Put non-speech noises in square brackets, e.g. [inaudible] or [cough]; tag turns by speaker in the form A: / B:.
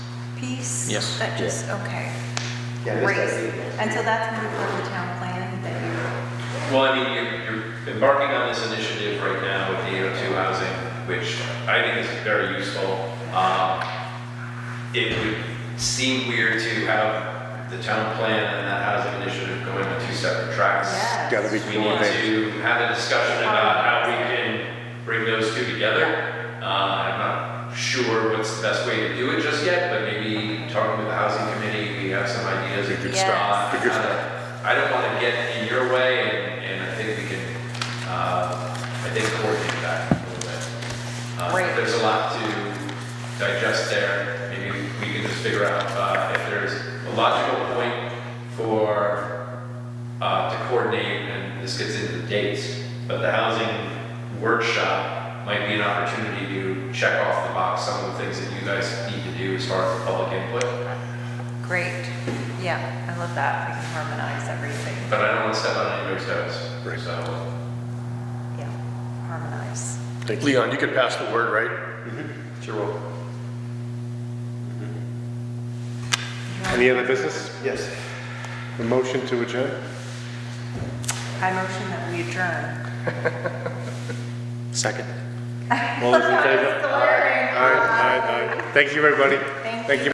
A: piece?
B: Yes.
A: That just, okay.
C: Yeah, this
A: Great.
C: doesn't-
A: And so that's gonna be part of the town plan that you,
D: Well, I mean, you're, you're embarking on this initiative right now with the AO2 housing, which I think is very useful. Um, It would seem weird to have the town plan and that housing initiative going on two separate tracks.
A: yes.
C: Gotta be
D: We need to have a discussion about how we can bring those two together. Uh, I'm not sure what's the best way to do it just yet, but maybe talking with the housing committee, we have some ideas.
C: It's a good
A: Yes.
C: start. It's a good
D: Uh,
C: start.
D: I don't want to get in your way, and, and I think we can, uh, I think coordinate that a little bit. Uh,
A: Great.
D: There's a lot to digest there, maybe we can just figure out, uh, if there's a logical point for, uh, to coordinate, and this gets into the dates, but the housing workshop might be an opportunity to check off the box some of the things that you guys need to do as far as the public input,
A: Great. Yeah, I love that. We can harmonize everything.
D: but I don't want to step on anybody's
C: Right.
D: toes, so.
A: Yeah, harmonize.
C: Thank you.
B: Leon, you could pass the word, right?
D: Mm-hmm. Sure will.
E: Any other business?
C: Yes.
E: A motion to adjourn?
A: I motion that we adjourn.
B: Second.
E: All those in favor?
A: Glaring.
E: [laughs] All right, all right, all right. Thank you, everybody.
A: Thank you.
E: Thank you.